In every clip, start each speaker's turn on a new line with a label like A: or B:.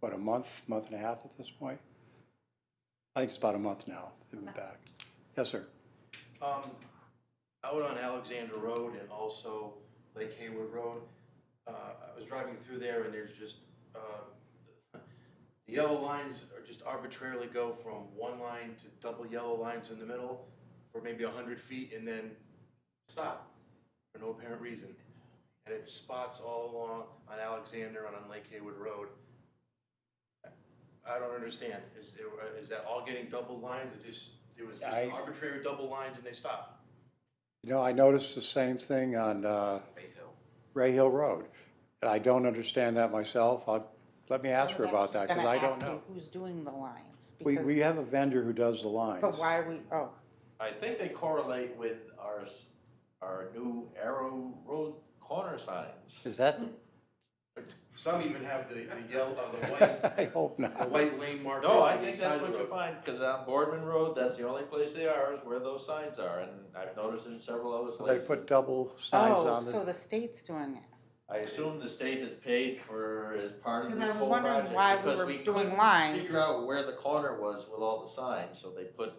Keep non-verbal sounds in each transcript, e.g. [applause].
A: what, a month, month and a half at this point? I think it's about a month now, they've been back. Yes, sir.
B: Um, out on Alexander Road and also Lake Haywood Road, uh, I was driving through there and there's just, uh, the yellow lines are just arbitrarily go from one line to double yellow lines in the middle for maybe a hundred feet and then stop for no apparent reason. And it's spots all along on Alexander and on Lake Haywood Road. I don't understand, is, there- is that all getting double lines, it just, there was just
A: I-
B: arbitrary double lines and they stopped?
A: You know, I noticed the same thing on uh, Ray Hill Road. And I don't understand that myself. I- Let me ask her about that, because I don't know.
C: Who's doing the lines?
A: We,
C: because-
A: we have a vendor who does the lines.
C: But why are we, oh,
D: I think they correlate with our, s- our new arrow road corner signs.
A: Is
C: [laughs]
A: that,
B: Some even have the, the yellow, uh, the white,
A: [laughs] I hope
B: the
A: not.
B: white lane markers
D: No, I
B: on the
D: think
B: side
D: that's
B: of
D: what
B: the
D: you
B: road.
D: find, cause on Boardman Road, that's the only place they are, is where those signs are, and I've noticed in several other
A: So They
D: places.
A: put double signs
C: oh,
A: on
C: so
A: the,
C: the state's doing it.
D: I assume the state has paid for, as part of
C: Because I
D: this
C: was
D: whole
C: wondering
D: project,
C: why we were
D: because we
C: doing
D: couldn't
C: lines.
D: figure out where the corner was with all the signs, so they put,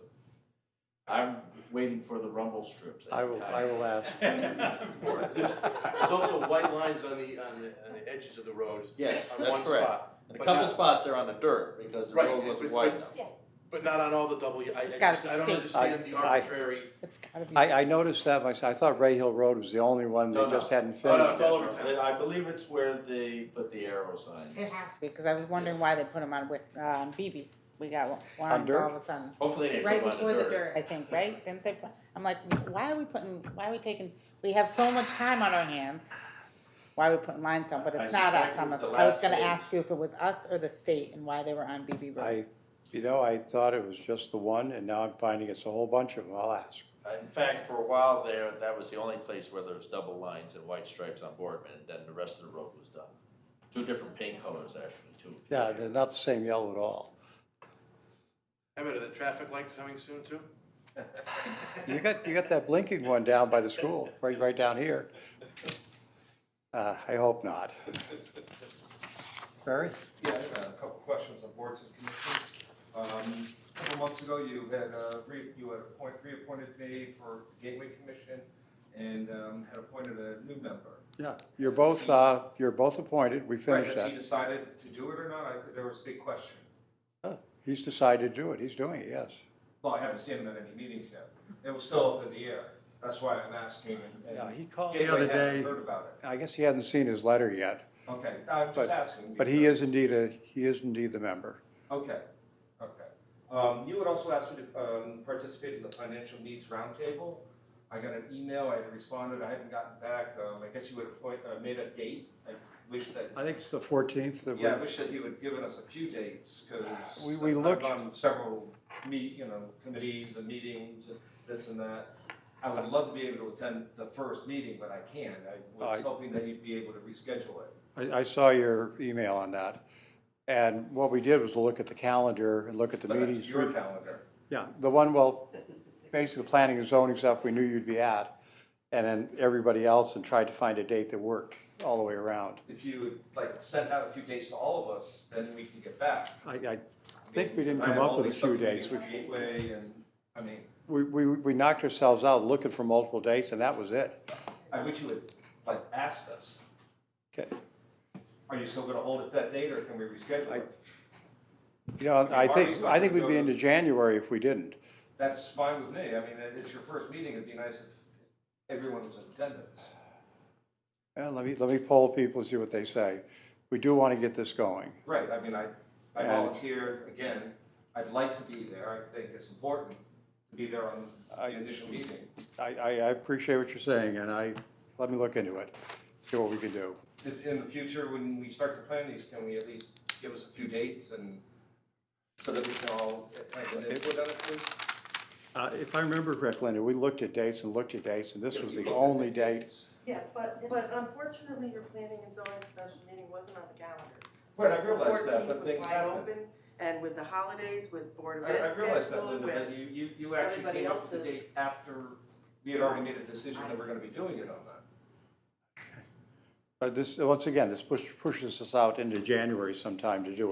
D: I'm waiting for the rumble strips.
A: I will, I will ask.
D: [laughs]
B: There's there's also white lines on the, on the, on the edges of the road.
D: Yes,
B: on one
D: that's correct.
B: spot,
D: And A
B: but
D: couple
B: not-
D: spots are on the dirt, because the
B: Right,
D: road
B: but-
D: wasn't
B: but-
D: wide enough.
B: But not on all the double, I, I
C: It's gotta
B: just,
C: be
B: I don't
C: state.
B: understand the
A: I- I-
B: arbitrary,
C: It's gotta be.
A: I, I noticed that myself. I thought Ray Hill Road was the only one,
D: No,
A: they
D: no.
A: just hadn't
B: Oh, no, it's
A: finished
B: all
A: it.
B: over town.
D: I believe it's where they put the arrow signs.
C: It has to be, because I was wondering why they put them on, Wick- um, BB. We got warrants
A: dirt?
C: all of a sudden.
D: Hopefully they
E: Right
D: put them
E: before
D: on
E: the
D: the
E: dirt.
C: I think, right? Didn't they, put- I'm like, why are we putting, why are we taking, we have so much time on our hands. Why are we putting lines on, but
D: I
C: it's not us,
D: suspect it
C: I'm,
D: was the
C: I was
D: last
C: gonna
D: stage.
C: ask you if it was us or the state and why they were on BB Road.
A: I, you know, I thought it was just the one, and now I'm finding it's a whole bunch of them. I'll ask.
D: In fact, for a while there, that was the only place where there was double lines and white stripes on Boardman, and then the rest of the road was done. Two different paint colors actually, too.
A: Yeah, they're not the same yellow at all.
B: I mean, are the traffic lights coming soon too?
A: You got, you got that blinking one down by the school, right, right down here. Uh, I hope not. Barry?
F: Yeah, I have a couple questions on boards and commissions. Um, A couple months ago, you had, uh, re- you had appoint, reappointed me for Gateway Commission and um, had appointed a new member.
A: Yeah, you're both, uh, you're both appointed. We finished
F: Right, has he
A: that.
F: decided to do it or not? I- There was a big question.
A: He's decided to do it. He's doing it, yes.
F: Well, I haven't seen him at any meetings yet. It was still up in the air. That's why I'm asking. and- and
A: Yeah, he called the
F: Gateway
A: other
F: hadn't
A: day.
F: Heard about
A: I guess he hasn't seen his letter yet,
F: it. Okay, I'm
A: But-
F: just asking.
A: but he
F: because-
A: is indeed a, he is indeed the member.
F: Okay, okay. Um, you would also ask me to, um, participate in the financial needs roundtable. I got an email, I had responded, I haven't gotten back, um, I guess you would have point, uh, made a date, I wish that,
A: I think it's the fourteenth that
F: yeah, I
A: we're,
F: wish that you had given us a few dates, cause.
A: We- we
F: I've
A: looked-
F: gone to Several meet, you know, committees and meetings and this and that. I would love to be able to attend the first meeting, but I can't, I
A: I-
F: was hoping that you'd be able to reschedule it.
A: I, I saw your email on that. And what we did was look at the calendar and look at the
F: But that's
A: meetings.
F: Uh, Your calendar.
A: Yeah, the one, well, basically the planning and zoning stuff we knew you'd be at, and then everybody else, and tried to find a date that worked all the way around.
F: If you would, like, send out a few dates to all of us, then we can get back.
A: I, I think we didn't come up with a few days. We-
F: Gateway and, I mean,
A: We, we, we knocked ourselves out looking for multiple dates, and that was it.
F: I wish you would, like, asked us,
A: Okay,
F: are you still gonna hold it that date or can we reschedule
A: I-
F: it?
A: you know, I think, I think we'd be into January if we didn't.
F: That's fine with me, I mean, it- it's your first meeting, it'd be nice if everyone was in attendance.
A: Yeah, let me, let me poll people, and see what they say. We do want to get this going.
F: Right, I mean, I, I
A: And-
F: volunteered, again, I'd like to be there, I think it's important to be there on the
A: I-
F: initial meeting.
A: I, I, I appreciate what you're saying, and I, let me look into it, see what we can do.
F: If, in the future, when we start to plan these, can we at least give us a few dates and, so that we can all, like, an input on it, please?
A: Uh, if I remember correctly, Linda, we looked at dates and looked at dates, and this was the only date.
G: Yeah, but, but unfortunately, your planning and zoning special meeting wasn't on the calendar.
F: Right, I realize that,
G: 14
F: but
G: was
F: things
G: wide
F: happen.
G: open, And with the holidays, with Board
F: I,
G: of Ed
F: I realize that,
G: schedule,
F: Linda,
G: with-
F: but you, you, you actually
G: everybody
F: came up with the
G: else's-
F: date after we had already made a decision that we're gonna be doing it on
A: Uh,
F: that.
A: But this, once again, this push- pushes us out into January sometime to do it.